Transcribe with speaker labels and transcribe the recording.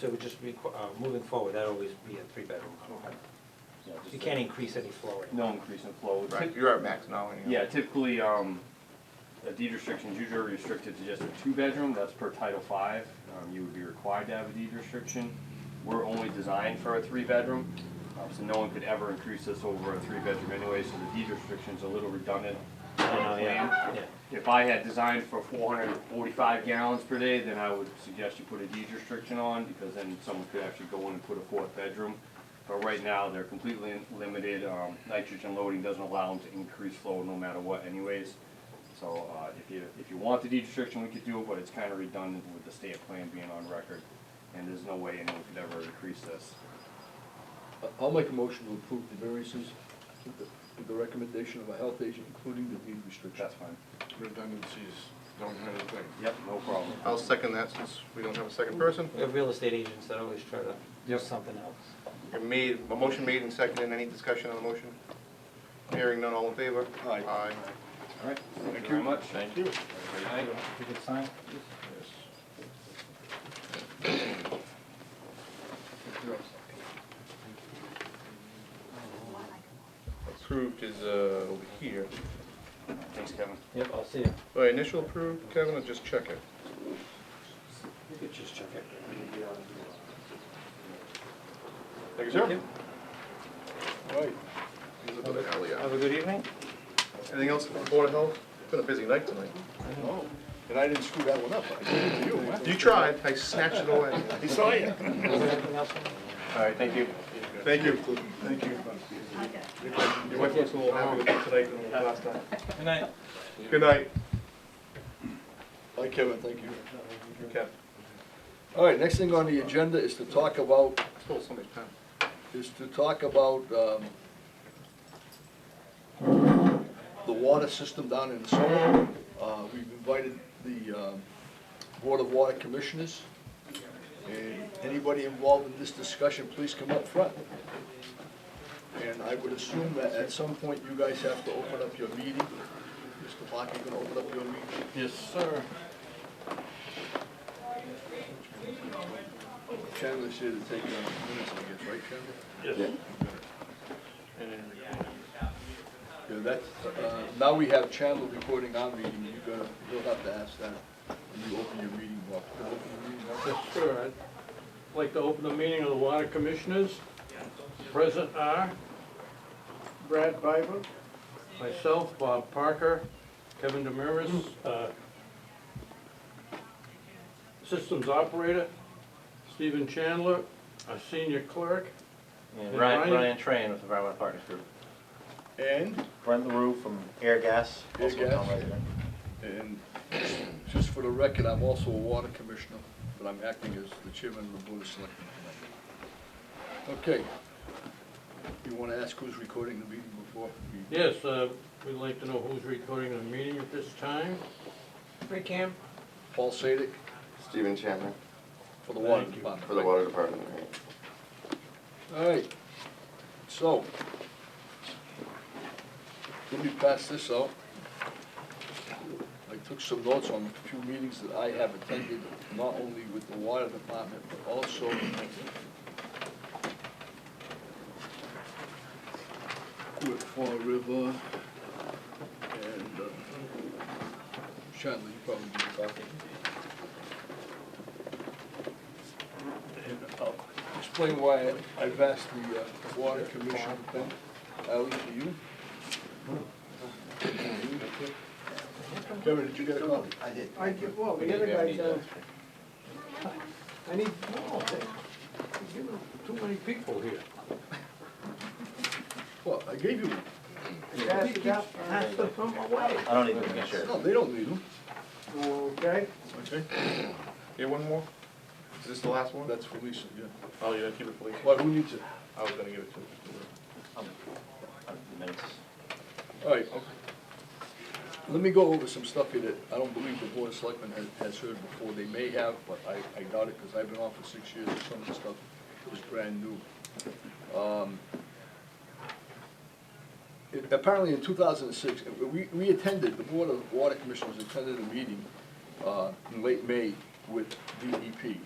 Speaker 1: So it would just be, uh, moving forward, that'd always be a three-bedroom apartment.
Speaker 2: Yeah, just
Speaker 1: You
Speaker 2: a-
Speaker 1: can't increase any floor area.
Speaker 2: No increase in flow.
Speaker 3: Right, you're at max now, anyhow.
Speaker 2: Yeah, typically, um, a deed restriction is usually restricted to just a two-bedroom, that's per Title Five. Um, you would be required to have a deed restriction. We're only designed for a three-bedroom, um, so no one could ever increase this over a three-bedroom anyway, so the deed restriction's a little redundant on the plan.
Speaker 1: Yeah.
Speaker 2: If I had designed for four hundred and forty-five gallons per day, then I would suggest you put a deed restriction on, because then someone could actually go in and put a fourth bedroom. But right now, they're completely limited, um, nitrogen loading doesn't allow them to increase flow no matter what anyways. So, uh, if you, if you want the deed restriction, we could do it, but it's kinda redundant with the state plan being on record, and there's no way anyone could ever increase this.
Speaker 4: I'll make a motion to approve the variances with the- with the recommendation of a health agent, including the deed restriction.
Speaker 2: That's fine.
Speaker 3: Redundancies don't hurt a thing.
Speaker 2: Yep, no problem.
Speaker 3: I'll second that since we don't have a second person.
Speaker 1: We have real estate agents that always try to do something else.
Speaker 3: A made, a motion made and seconded, any discussion on the motion? Hearing none, all in favor?
Speaker 4: Aye.
Speaker 3: Aye.
Speaker 2: All right, thank you very much. Thank you.
Speaker 1: You could sign?
Speaker 3: Approved is, uh, over here.
Speaker 2: Thanks, Kevin.
Speaker 1: Yep, I'll see you.
Speaker 3: All right, initial approved, Kevin, or just check it?
Speaker 1: Just check it.
Speaker 3: Thank you, sir.
Speaker 4: Right.
Speaker 3: Here's a bit of alley out.
Speaker 1: Have a good evening.
Speaker 3: Anything else from Board of Health? It's been a busy night tonight.
Speaker 4: Oh, And I didn't screw that one up, I did it to you. huh?
Speaker 3: You tried, I snatched it away.
Speaker 4: I saw you.
Speaker 1: Is there anything else?
Speaker 2: All right, thank you.
Speaker 3: Thank you.
Speaker 4: Thank you.
Speaker 3: Your wife looks a little happier with you tonight than last time.
Speaker 1: Good night.
Speaker 3: Good night.
Speaker 4: Hi, Kevin, thank you.
Speaker 3: Okay.
Speaker 4: All right, next thing on the agenda is to talk about,
Speaker 3: Stole somebody's pen.
Speaker 4: is to talk about, um, the water system down in Somer. Uh, we've invited the, um, Board of Water Commissioners. And anybody involved in this discussion, please come up front. And I would assume that at some point you guys have to open up your meeting. Mr. Block, you gonna open up your meeting?
Speaker 2: Yes, sir.
Speaker 4: Chandler's here to take uh, minutes, I guess, right, Chandler? Yeah, that's, uh, now we have Chandler recording our meeting, you're gonna, you'll have to ask that when you open your meeting up.
Speaker 5: Sure, I'd like to open the meeting of the Water Commissioners. Present are Brad Biber, myself, Bob Parker, Kevin Demiris, uh, Systems Operator, Stephen Chandler, our Senior Clerk,
Speaker 6: And
Speaker 5: Yeah,
Speaker 6: Ryan,
Speaker 5: Ryan-
Speaker 6: Ryan Train with Environmental Partners Group.
Speaker 4: And,
Speaker 6: Brent LaRue from Air Gas,
Speaker 4: Air
Speaker 6: also a town
Speaker 4: Gas.
Speaker 6: resident.
Speaker 4: and just for the record, I'm also a water commissioner, but I'm acting as the chairman of the board of selectmen. tonight. Okay. You wanna ask who's recording the meeting before? we-
Speaker 5: Yes, uh, we'd like to know who's recording the meeting at this time.
Speaker 1: Free cam.
Speaker 4: Paul Sadek
Speaker 7: Stephen Chandler
Speaker 4: for the water
Speaker 5: Thank you.
Speaker 4: department.
Speaker 7: for the water department, right?
Speaker 4: All right, so, let me pass this out. I took some notes on a few meetings that I have attended, not only with the water department, but also with Fall River and, uh, Shanley, you probably do that. And uh, I'll explain why I've asked the uh, water commission, Uh, Ally, to you. Kevin, did you get a copy?
Speaker 7: I did.
Speaker 8: I give, well, the other guy does. I need, no,
Speaker 5: You know, Too many people here.
Speaker 4: Well, I gave you one.
Speaker 8: pass it out, pass it from away,
Speaker 6: I don't even think sure.
Speaker 4: No, they don't need them.
Speaker 8: okay?
Speaker 4: Okay.
Speaker 3: Here, one more? Is this the last one?
Speaker 4: That's for Lisa, yeah.
Speaker 3: Oh, you're gonna keep it for later?
Speaker 4: Well, who needs it?
Speaker 3: I was gonna give it to you.
Speaker 6: Uh, the minutes.
Speaker 4: All right. Let me go over some stuff here that I don't believe the board of selectmen has, has heard before. They may have, but I, I doubt it, because I've been on for six years, and some of the stuff is brand new. Um, it- Apparently in two thousand and six, uh, we, we attended, the Board of Water Commissioners attended a meeting, uh, in late May with DEP.